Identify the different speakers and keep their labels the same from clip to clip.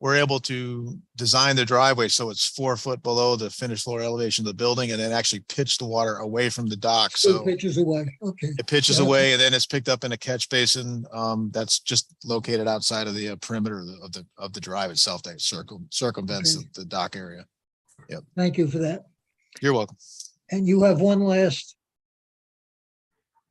Speaker 1: we're able to design the driveway so it's four foot below the finished floor elevation of the building and then actually pitch the water away from the dock.
Speaker 2: Two
Speaker 1: So
Speaker 2: pitches away, okay.
Speaker 1: it pitches
Speaker 2: Yeah.
Speaker 1: away and then it's picked up in a catch basin. Um, that's just located outside of the uh, perimeter of the- of the, of the drive itself that circle, circumvents
Speaker 2: Okay.
Speaker 1: the- the dock area.
Speaker 2: Thank you for that.
Speaker 1: You're welcome.
Speaker 2: And you have one last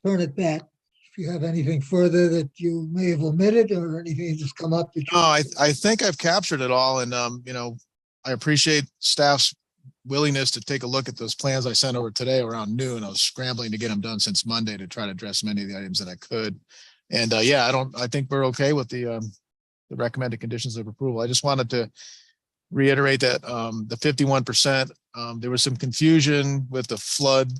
Speaker 2: turn at bat. If you have anything further that you may have omitted or anything that's come up. that you-
Speaker 1: No, I, I think I've captured it all and, um, you know, I appreciate staff's willingness to take a look at those plans I sent over today around noon. I was scrambling to get them done since Monday to try to address many of the items that I could. And, uh, yeah, I don't, I think we're okay with the, um, the recommended conditions of approval. I just wanted to reiterate that, um, the fifty-one percent, um, there was some confusion with the flood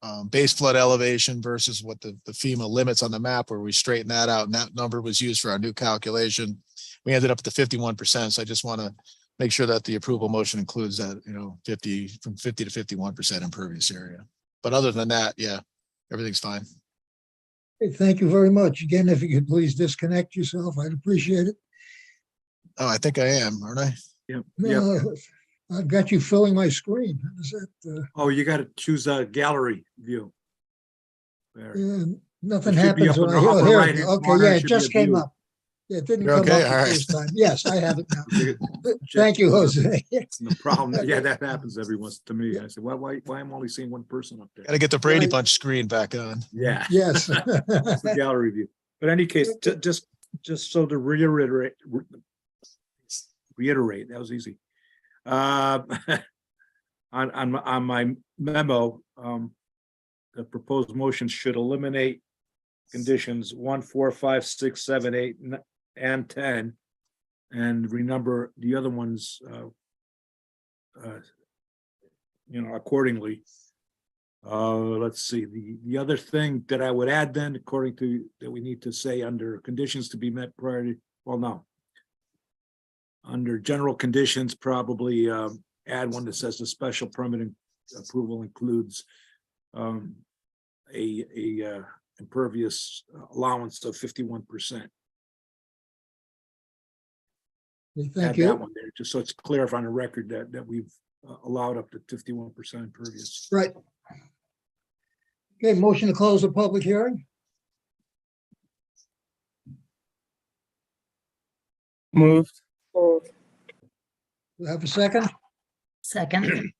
Speaker 1: um, base flood elevation versus what the, the FEMA limits on the map where we straighten that out. And that number was used for our new calculation. We ended up at the fifty-one percent. So I just want to make sure that the approval motion includes that, you know, fifty, from fifty to fifty-one percent impervious area. But other than that, yeah, everything's fine.
Speaker 2: Okay, Thank you very much. Again, if you could please disconnect yourself, I'd appreciate it.
Speaker 1: Oh, I think I am, aren't I?
Speaker 3: Yep. Yep.
Speaker 2: No, uh, I've got you filling my screen. Is that, uh,
Speaker 3: Oh, you gotta choose a gallery view. There.
Speaker 2: Yeah, Nothing
Speaker 3: It should be
Speaker 2: happens
Speaker 3: up
Speaker 2: when
Speaker 3: in
Speaker 2: I,
Speaker 3: the upper
Speaker 2: oh, here, it
Speaker 3: right-hand
Speaker 2: is.
Speaker 3: corner,
Speaker 2: okay, yeah,
Speaker 3: it
Speaker 2: it
Speaker 3: should be
Speaker 2: just
Speaker 3: a
Speaker 2: came
Speaker 3: view.
Speaker 2: up. Yeah, It didn't
Speaker 1: You're
Speaker 2: come up
Speaker 1: okay?
Speaker 2: the
Speaker 1: All right.
Speaker 2: first time. Yes, I have it now.
Speaker 3: You-
Speaker 2: Thank you, Jose.
Speaker 3: No problem. Yeah, that happens every once to me. I said, why, why, why am I only seeing one person up there?
Speaker 1: Gotta get the Brady
Speaker 2: Right.
Speaker 1: Bunch screen back on.
Speaker 3: Yeah.
Speaker 2: Yes.
Speaker 3: It's the gallery view. But any case, ju- just, just so to reiterate, re- reiterate, that was easy. Uh, On, on, my- on my memo, um, the proposed motion should eliminate conditions one, four, five, six, seven, eight, n- and ten. And renumber the other ones, uh, uh, you know, accordingly. Uh, let's see, the, the other thing that I would add then, according to, that we need to say under conditions to be met prior to, well, no. Under general conditions, probably um, add one that says the special permit in- approval includes um, a, a uh, impervious allowance of fifty-one percent.
Speaker 2: Thank
Speaker 3: Add that
Speaker 2: you.
Speaker 3: one there, just so it's clear on the record that, that we've uh, allowed up to fifty-one percent impervious.
Speaker 2: Right. Okay, motion to close the public hearing?
Speaker 4: Moved.
Speaker 5: Moved.
Speaker 2: Do I have a second?
Speaker 5: Second.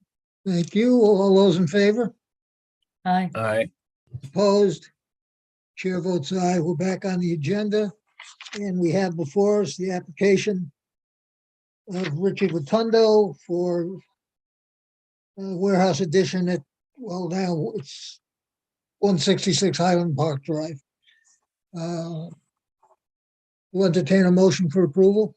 Speaker 2: Thank you. All those in favor?
Speaker 5: Aye.
Speaker 4: Aye.
Speaker 2: Opposed? Chair votes aye. We're back on the agenda. And we have before us the application of Richard Rotundo for uh, warehouse addition at, well, now it's 166 Highland Park Drive. Uh, Will entertain a motion for approval?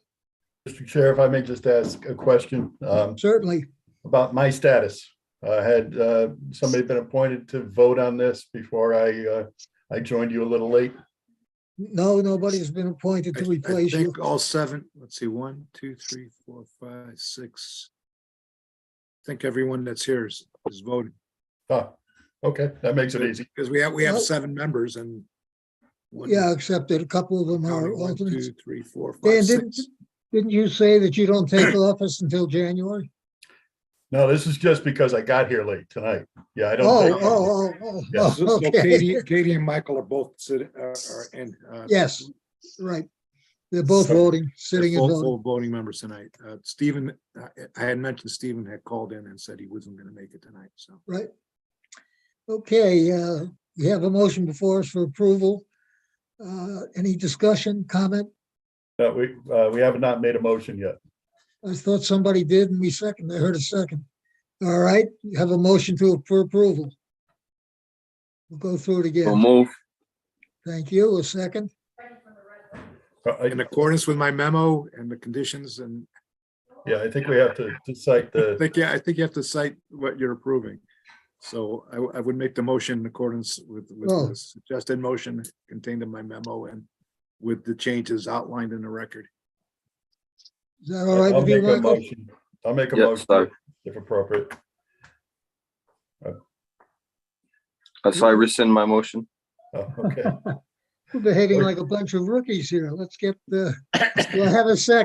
Speaker 6: Mr. Chair, if I may just ask a question um,
Speaker 2: Certainly.
Speaker 6: about my status. Uh, Had uh, somebody been appointed to vote on this before I, uh, I joined you a little late?
Speaker 2: No, nobody's been appointed
Speaker 3: I
Speaker 2: to
Speaker 3: I
Speaker 2: replace you.
Speaker 3: think all seven, let's see, one, two, three, four, five, six. I Think everyone that's here is, is voting,
Speaker 6: Huh, Okay, that makes it easy.
Speaker 3: because we have, we have
Speaker 2: Well-
Speaker 3: seven members and. one-
Speaker 2: Yeah, except that a couple of them are
Speaker 3: counting, One,
Speaker 2: alternates.
Speaker 3: two, three, four, five,
Speaker 2: Dan, didn't,
Speaker 3: six.
Speaker 2: didn't you say that you don't take office until January?
Speaker 6: No, this is just because I got here late tonight. Yeah,
Speaker 2: Oh,
Speaker 6: I don't.
Speaker 3: think-
Speaker 6: think-
Speaker 2: oh, oh,
Speaker 6: Yes.
Speaker 2: oh,
Speaker 3: So
Speaker 2: oh, okay,
Speaker 3: Katie, Katie and Michael are both sitting, are, are in. uh,
Speaker 2: Yes, right. They're both
Speaker 3: So-
Speaker 2: voting,
Speaker 3: they're
Speaker 2: sitting and
Speaker 3: full-
Speaker 2: voting.
Speaker 3: full Voting members tonight. Uh, Stephen, I, I had mentioned Stephen had called in and said he wasn't gonna make it tonight, so.
Speaker 2: Okay, uh, we have a motion before us for approval. Uh, any discussion, comment?
Speaker 6: No, We, uh, we have not made a motion yet.
Speaker 2: I thought somebody did and we second, I heard a second. All right, you have a motion to, for approval. We'll go through it
Speaker 4: So
Speaker 2: again.
Speaker 4: moved.
Speaker 2: Thank you, a second.
Speaker 6: Uh, I-
Speaker 3: In accordance with my memo and the conditions and
Speaker 6: Yeah, I think we have to to cite
Speaker 3: I
Speaker 6: the,
Speaker 3: think, yeah, I think you have to cite what you're approving. So I, w- I would make the motion in accordance with, with
Speaker 2: Oh.
Speaker 3: the suggested motion contained in my memo and with the changes outlined in the record.
Speaker 2: Is that all right
Speaker 6: I'll
Speaker 2: with you,
Speaker 6: make a
Speaker 2: Michael?
Speaker 6: motion. I'll make a
Speaker 4: Yes, sir.
Speaker 6: motion if appropriate.
Speaker 4: Uh, So I rescind my motion.
Speaker 6: Oh, Okay.
Speaker 2: We're behaving like a bunch of rookies here. Let's get the, do I have a second?